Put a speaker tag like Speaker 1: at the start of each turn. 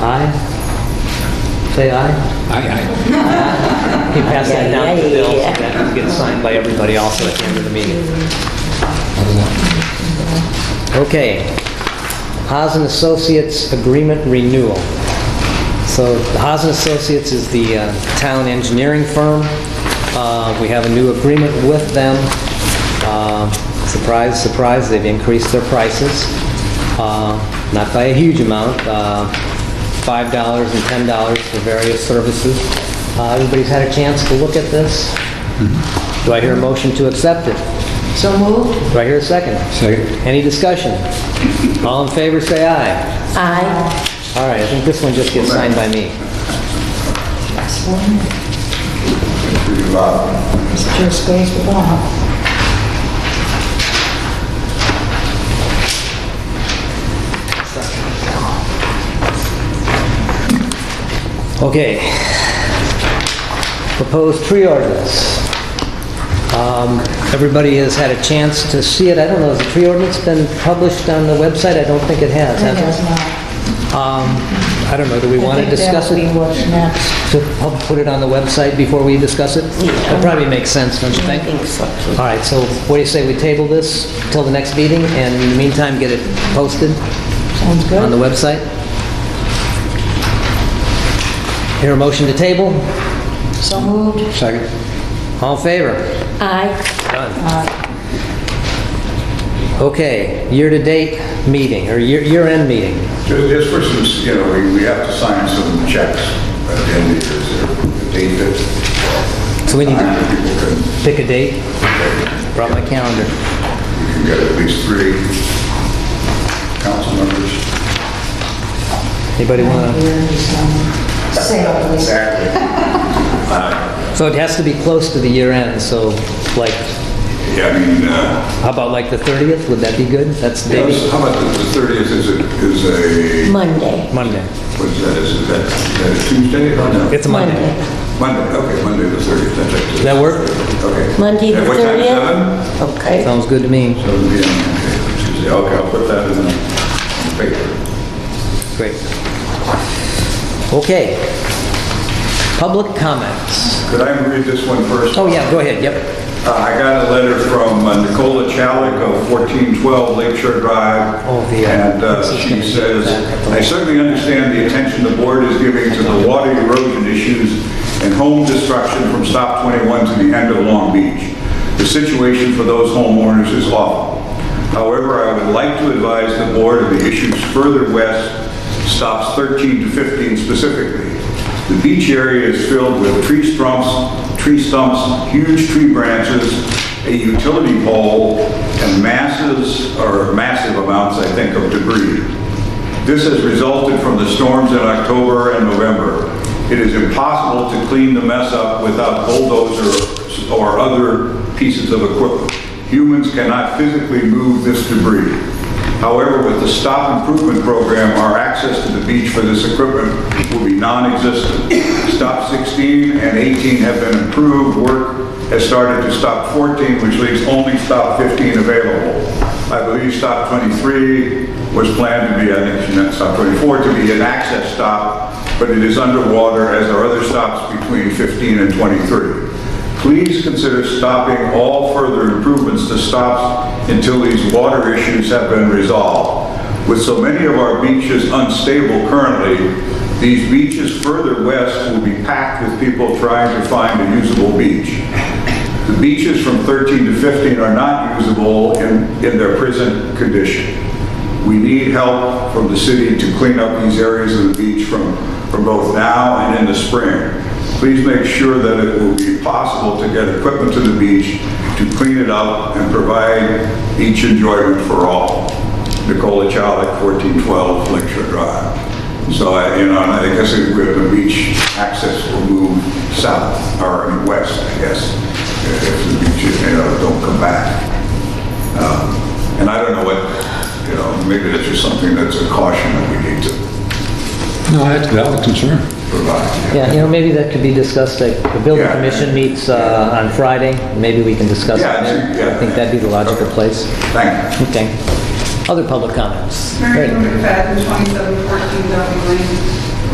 Speaker 1: Aye? Say aye?
Speaker 2: Aye, aye.
Speaker 1: He passed that down to
Speaker 3: Yeah, yeah,
Speaker 1: Bill, so
Speaker 3: yeah.
Speaker 1: that gets signed by everybody also at the end of the meeting. Okay. Haas and Associates Agreement Renewal. So Haas and Associates is the uh, town engineering firm. Uh, We have a new agreement with them. Uh, Surprise, surprise, they've increased their prices, Uh, not by a huge amount, uh, $5 and $10 for various services. Uh, Everybody's had a chance to look at this. Do I hear a motion to accept it?
Speaker 3: So moved.
Speaker 1: Do I hear a second?
Speaker 2: Second.
Speaker 1: Any discussion? All in favor, say aye.
Speaker 3: Aye.
Speaker 1: All right, I think this one just gets signed by me.
Speaker 3: Just goes to Bob.
Speaker 1: Okay. Proposed tree ordinance. Um, Everybody has had a chance to see it. I don't know, has the tree ordinance been published on the website? I don't think it has, has it? Um, I don't know, do we want to discuss it?
Speaker 3: I think that'll be what's next.
Speaker 1: To pu- put it on the website before we discuss it? That probably makes sense, don't you
Speaker 3: I
Speaker 1: think?
Speaker 3: think so. too.
Speaker 1: All right, so what do you say, we table this till the next meeting, and in the meantime, get it posted
Speaker 3: Sounds
Speaker 1: on the
Speaker 3: good.
Speaker 1: website? Hear a motion to table?
Speaker 3: So moved.
Speaker 2: Second.
Speaker 1: All in favor?
Speaker 3: Aye.
Speaker 1: Done. Okay, year-to-date meeting, or year- year-end meeting.
Speaker 4: Ju- Just for some, you know, we, we have to sign some checks at the end of the year, the date that
Speaker 1: So we need to
Speaker 4: people can,
Speaker 1: pick a date. Brought my calendar.
Speaker 4: you can get at least three council members.
Speaker 1: Anybody want to?
Speaker 3: Here is, um, Sale, please.
Speaker 4: Exactly.
Speaker 1: So it has to be close to the year-end, so like,
Speaker 4: Yeah, I mean, uh,
Speaker 1: how about like the 30th? Would that be good? That's
Speaker 4: you know,
Speaker 1: maybe
Speaker 4: how about the thirtieth is a, is a,
Speaker 3: Monday.
Speaker 1: Monday.
Speaker 4: what's that, is that, is that a Tuesday? Oh, no.
Speaker 1: It's a Monday.
Speaker 4: Monday, okay, Monday the thirtieth, that's right.
Speaker 1: Does that work?
Speaker 4: Okay.
Speaker 3: Monday the
Speaker 4: At what time,
Speaker 3: 30th?
Speaker 4: seven?
Speaker 3: Okay.
Speaker 1: Sounds good to me.
Speaker 4: Seven P M, okay, Tuesday, okay, I'll put that in the in the paper.
Speaker 1: Great. Okay. Public comments.
Speaker 4: Could I read this one first?
Speaker 1: Oh, yeah, go ahead, yep.
Speaker 4: Uh, I got a letter from uh, Nicola Chalik of 1412 Lakeshore Drive.
Speaker 1: Oh, the, uh,
Speaker 4: And uh,
Speaker 1: this is
Speaker 4: she
Speaker 1: gonna be
Speaker 4: says,
Speaker 1: bad.
Speaker 4: "I certainly understand the attention the board is giving to the water erosion issues and home destruction from Stop 21 to the end of Long Beach. The situation for those homeowners is awful. However, I would like to advise the board of the issues further west stops 13 to 15 specifically. The beach area is filled with tree stumps, tree stumps, huge tree branches, a utility pole, and masses, or massive amounts, I think, of debris. This has resulted from the storms in October and November. It is impossible to clean the mess up without bulldozers or other pieces of equipment. Humans cannot physically move this debris. However, with the stop improvement program, our access to the beach for this equipment will be non-existent. Stop 16 and 18 have been improved, work has started to stop 14, which leaves only stop 15 available. I believe stop 23 was planned to be, I think, not stop 24, to be an access stop, but it is underwater as are other stops between 15 and 23. Please consider stopping all further improvements to stops until these water issues have been resolved. With so many of our beaches unstable currently, these beaches further west will be packed with people trying to find a usable beach. The beaches from 13 to 15 are not usable in, in their present condition. We need help from the city to clean up these areas of the beach from, from both now and in the spring. Please make sure that it will be possible to get equipment to the beach to clean it up and provide beach enjoyment for all. Nicola Chalik, 1412 Lakeshore Drive. So, I- you know, and I guess it- where the beach access will move south or west, I guess, if the beaches, you know, don't come back. Um, And I don't know what, you know, maybe that's just something that's a caution that we need to
Speaker 2: No, that's a valid concern.
Speaker 4: provide.
Speaker 1: Yeah, you know, maybe that could be discussed, like, the building
Speaker 4: Yeah.
Speaker 1: commission meets uh, on Friday, maybe we can discuss it
Speaker 4: Yeah, I think-
Speaker 1: there.
Speaker 4: yeah.
Speaker 1: I think that'd be the logical place.
Speaker 4: Thank you.
Speaker 1: Okay. Other public comments?
Speaker 5: Mary
Speaker 1: Great.
Speaker 5: Jo McFadden, 2714 Dublin Lane.